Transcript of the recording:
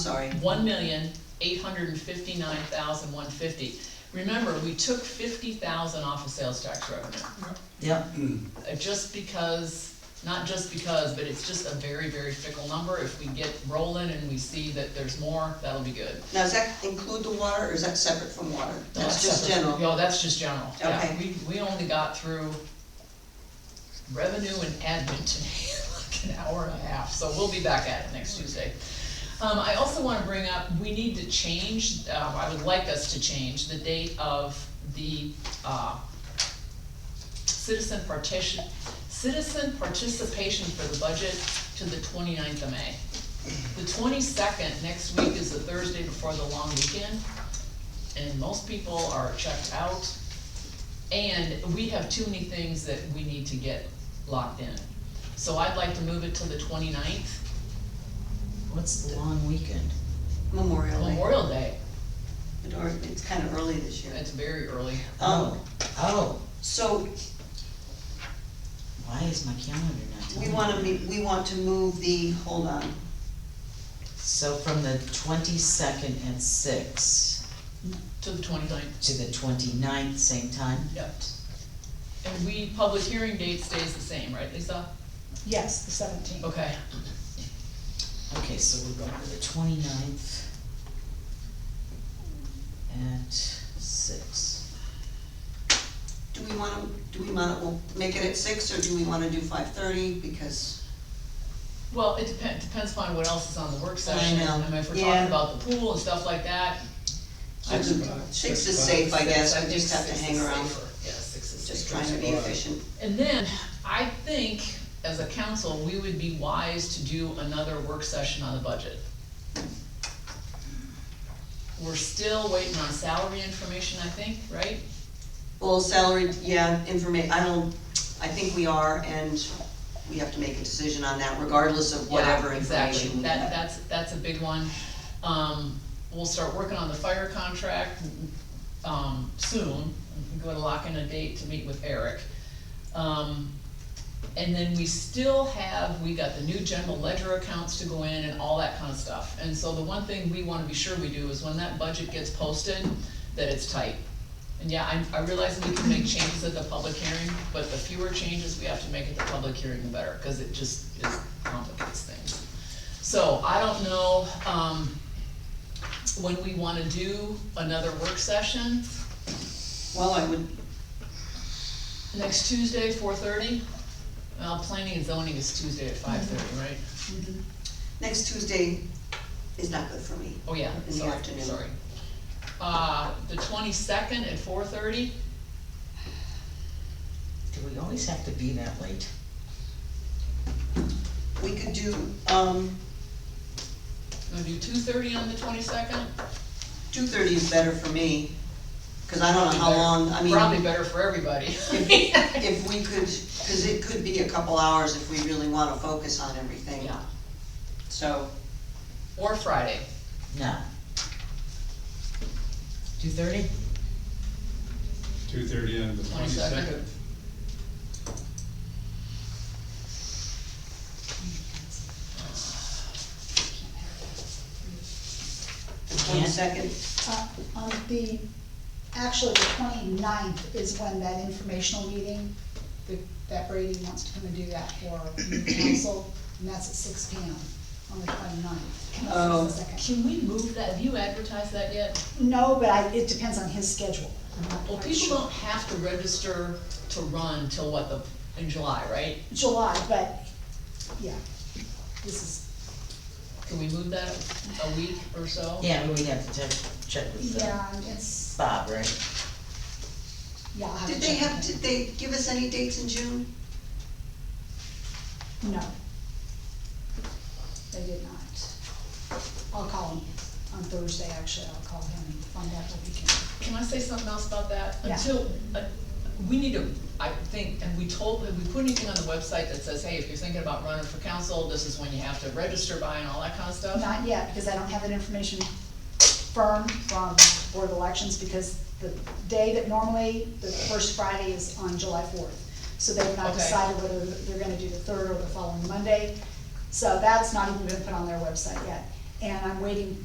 sorry. one million, eight hundred and fifty-nine thousand, one fifty. Remember, we took fifty thousand off of sales tax revenue, Yep, uh, just because, not just because, but it's just a very, very fickle number. If we get rolling and we see that there's more, that'll be good. now does that include the water, or is that separate from water? No, That's just separate. general, No, that's just general, yeah, Okay. we, we only got through revenue and admin today, like an hour and a half, so we'll be back at it next Tuesday. Um, I also wanna bring up, we need to change, uh, I would like us to change the date of the, uh, citizen partition, citizen participation for the budget to the 29th of May. The twenty-second, next week is the Thursday before the long weekend, and most people are checked out. And we have too many things that we need to get locked in. So I'd like to move it to the 29th, What's the long weekend? Memorial Day, Memorial Day, or it's kind of early this year. it's very early. Um, Oh, so why is my calendar not telling we me? wanna meet, we want to move the, hold on, So from the twenty-second at six To the 29th. to the 29th, same time? yep. And we, public hearing date stays the same, right, Lisa? Yes, the seventeenth. Okay, Okay, so we're going to the 29th at six. do we wanna, do we wanna, we'll make it at six, or do we wanna do five thirty, because, well, it depends, depends upon what else is on the work session, know, I mean, if we're yeah. talking about the pool and stuff like that, six is safe, I guess, I just have to hang around, Yeah, six is just safer. trying to be efficient. And then, I think, as a council, we would be wise to do another work session on the budget. We're still waiting on salary information, I think, right? Well, salary, yeah, informa, I don't, I think we are, and we have to make a decision on that regardless of whatever Yeah, exactly. information we That, have. that's, that's a big one. Um, we'll start working on the fire contract, um, soon. I'm going to lock in a date to meet with Eric. Um, and then we still have, we got the new general ledger accounts to go in and all that kind of stuff. And so the one thing we wanna be sure we do is when that budget gets posted, that it's tight. And yeah, I, I realize we can make changes at the public hearing, but the fewer changes we have to make at the public hearing, the better, cause it just is complicates things. So I don't know, um, when we wanna do another work session, Well, I would, next Tuesday, four thirty? Well, planning and zoning is Tuesday at five Mm-hmm. thirty, right? next Tuesday is not good for me. Oh, yeah, In the sorry, afternoon. sorry. Uh, the twenty-second at four thirty, Do we always have to be that late? We could do, um, gonna do two thirty on the twenty-second? two thirty is better for me, cause I don't know Uh, how long, I Probably mean, better for everybody. if we could, cause it could be a couple hours if we really wanna focus on everything, Yeah, so. or Friday, No. Two thirty? Two thirty on the twenty-second. twenty-second. The twenty-second, Uh, On the, actually, the 29th is when that informational meeting, that- that Brady wants to come and do that for the council, and that's at six P M on the 29th. not Oh. 22nd. Can we move that, have you advertised that yet? No, but I, it depends on his schedule. I'm not Well, quite people sure. don't have to register to run till what, the, in July, right? July, but, yeah, this is, Can we move that a week or so? Yeah, we have to check, check with uh, yeah, it's, Bob, right? yeah. I'll to did they check have, with did they give us any dates in June? him. No. They did not. I'll call him on Thursday, actually, I'll call him and find out what we can. Can I say something else about that? Yeah. Until, uh, we need to, I think, and we told, have we put anything on the website that says, hey, if you're thinking about running for council, this is when you have to register by and all that kind of stuff? Not yet, because I don't have that information firm from Board of Elections, because the day that normally, the first Friday is on July fourth. So they've not Okay. decided whether they're gonna do the third or the following Monday. So that's not even been put on their website yet. And I'm waiting